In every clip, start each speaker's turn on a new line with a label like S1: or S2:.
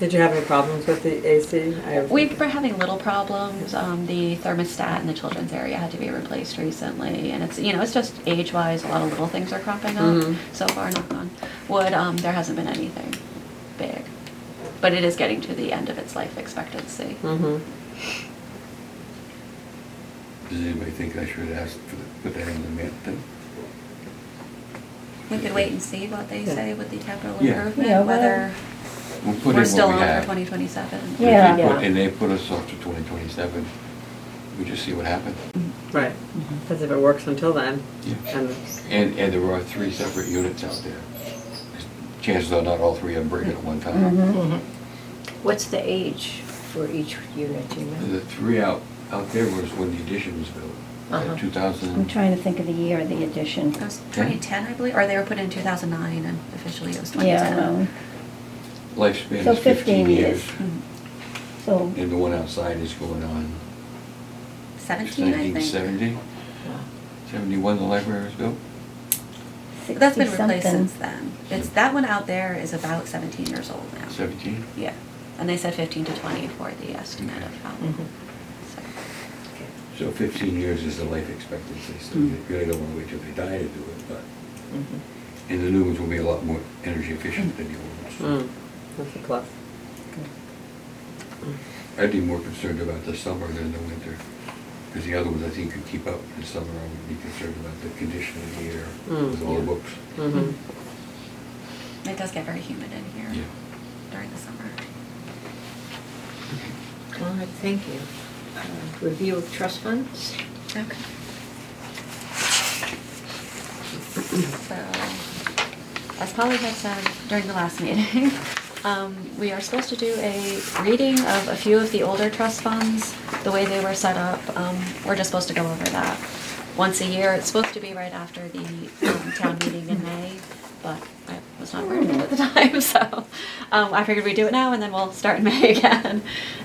S1: Did you have any problems with the AC? I have-
S2: We were having little problems. Um, the thermostat in the children's area had to be replaced recently, and it's you know it's just age-wise, a lot of little things are cropping up.
S1: Mhm.
S2: So far, knock on wood, um, there hasn't been anything big, but it is getting to the end of its life expectancy.
S1: Mhm.
S3: Does anybody think I should ask for, the- put that in the minute then?
S2: We could wait and see what they
S1: Yeah.
S2: say with the capital
S3: Yeah.
S2: improvement,
S4: Yeah,
S2: whether
S3: We'll put in
S2: we're
S3: what
S2: still
S3: we
S2: on for
S3: have.
S2: 2027.
S3: If they
S4: Yeah.
S3: put-
S1: Yeah.
S3: And they put us off to twenty twenty-seven, we just see what happens.
S1: Right. Because if it works until then,
S3: Mm-hmm. Yeah.
S1: and
S3: And, and there are three separate units out there. Chances are not all three are breaking at one time.
S5: Mm-hmm.
S4: Mhm.
S5: What's the age for each unit, do you know?
S4: Mm-hmm.
S3: The three out, out there was when the addition was built,
S5: Uh-huh.
S3: in two
S4: I'm
S3: thousand.
S4: trying to think of the year of the addition.
S2: It was 2010, I believe, or they were put in 2009, and officially it was
S4: Yeah,
S2: 2010.
S4: well,
S3: Lifespan
S4: So
S3: is fifteen
S4: 15 years. Mm-hmm.
S3: years,
S2: Mm.
S4: so,
S3: and the one outside is going on.
S2: 17, I think.
S3: 1970? 71 the library was built?
S2: That's been
S4: 60
S2: replaced
S4: something.
S2: since then. It's, that one out there is about seventeen years old now.
S3: Seventeen?
S2: Yeah, and they said fifteen to twenty for the estimate of how.
S5: Mhm.
S2: so.
S3: So fifteen years is the life expectancy, so
S2: Hmm.
S3: you really don't wanna wait till they die to do it, but,
S5: Mhm.
S3: and the new ones will be a lot more energy efficient than the
S2: Hmm.
S3: old ones.
S1: mm, that's a plus.
S3: I'd be more concerned about the summer than the winter, because the other ones I think could keep up in the summer, I would be concerned about the condition of the air
S2: Hmm.
S1: Mm.
S3: with all the books.
S1: Mhm.
S2: It does get very humid in
S3: Yeah.
S2: here during the summer.
S5: All right, Oh, thank you. Uh, Review of trust funds?
S2: Okay. So, as Polly had said during the last meeting, um, we are supposed to do a reading of a few of the older trust funds, the way they were set up. Um, we're just supposed to go over that once a year. It's supposed to be right after the um, town meeting in May, but I was not aware of it at the time, so um, I figured we'd do it now and then we'll start in May again.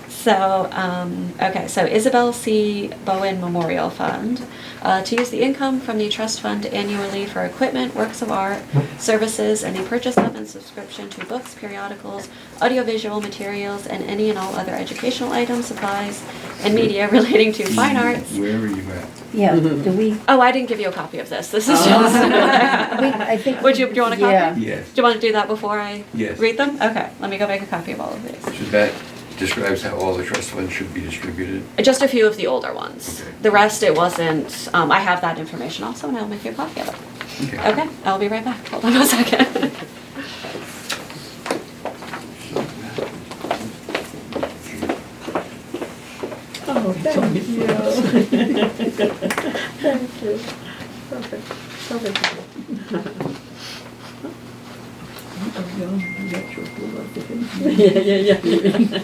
S2: So, um, okay, so Isabel C. Bowen Memorial Fund. Uh, to use the income from the trust fund annually for equipment, works of art, services, and the purchase of and subscription to books, periodicals, audiovisual materials, and any and all other educational items, supplies, and media relating to fine arts.
S3: Hmm. Where are you at?
S4: Yeah,
S3: Mm-hmm.
S4: do we,
S2: Oh, I didn't give you a copy of this. This is just.
S4: we- I think.
S2: Would you, do you want a copy?
S4: Yeah.
S2: Do
S3: Yes.
S2: you want to do that before I
S3: Yes.
S2: read them? Okay, let me go make a copy of all of these.
S3: So that describes how all the trust funds should be distributed.
S2: Just a few of the older ones.
S3: Okay.
S2: The rest, it wasn't, um, I have that information also, and I'll make you a copy of it. Okay, I'll be right back. Hold on a second.
S5: Oh, thank you. Thank you. Perfect, perfect.
S1: Yeah, yeah, yeah.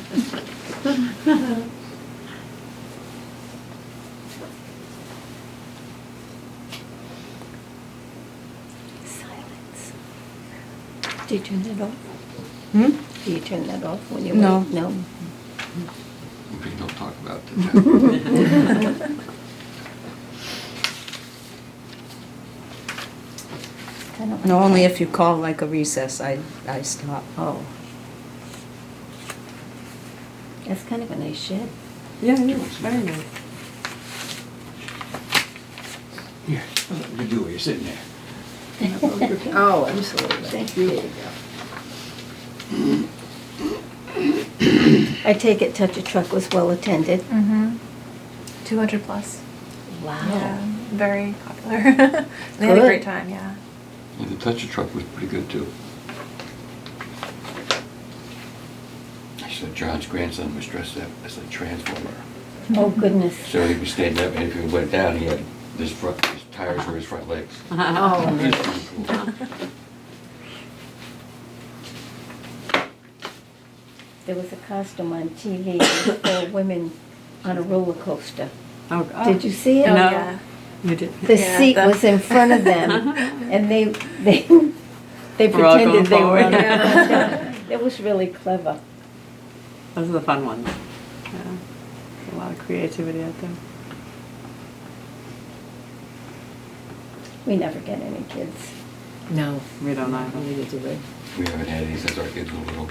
S5: Silence. Do you turn that off? Do you turn that off when you wait?
S6: No.
S5: No?
S3: We don't talk about that.
S4: I don't
S6: No,
S4: know.
S6: only if you call like a recess, I, I stop.
S5: Oh. That's kind of a nice shed.
S1: Yeah, yeah, very nice.
S3: Yeah, you do, it, you're sitting there.
S5: Oh, absolutely. Thank you. I take it Touch a Truck was well attended.
S7: Mm-hmm. 200 plus.
S5: Wow.
S7: Yeah, very popular. they had
S5: Good.
S7: a great time, yeah.
S3: And the toucher truck was pretty good too. I said John's grandson was dressed up as a transformer.
S4: Oh, goodness.
S3: So he was standing up and if he went down, he had this front, his tires were his front legs.
S5: Oh,
S3: It was pretty cool.
S4: There was a costume on TV with four women on a roller coaster.
S1: Oh, oh.
S4: Did you see it?
S7: Oh,
S1: No.
S7: yeah.
S1: You did.
S4: The
S7: Yeah,
S4: seat
S7: the-
S4: was in front of them, and they, they, they
S1: We're all going
S4: pretended they were
S1: forward.
S4: on a
S7: Yeah.
S4: coaster. It was really clever.
S1: Those are the fun ones. Yeah. A lot of creativity out there.
S4: We never get any kids.
S5: No.
S1: We don't either.
S3: We haven't had any since our kids were little.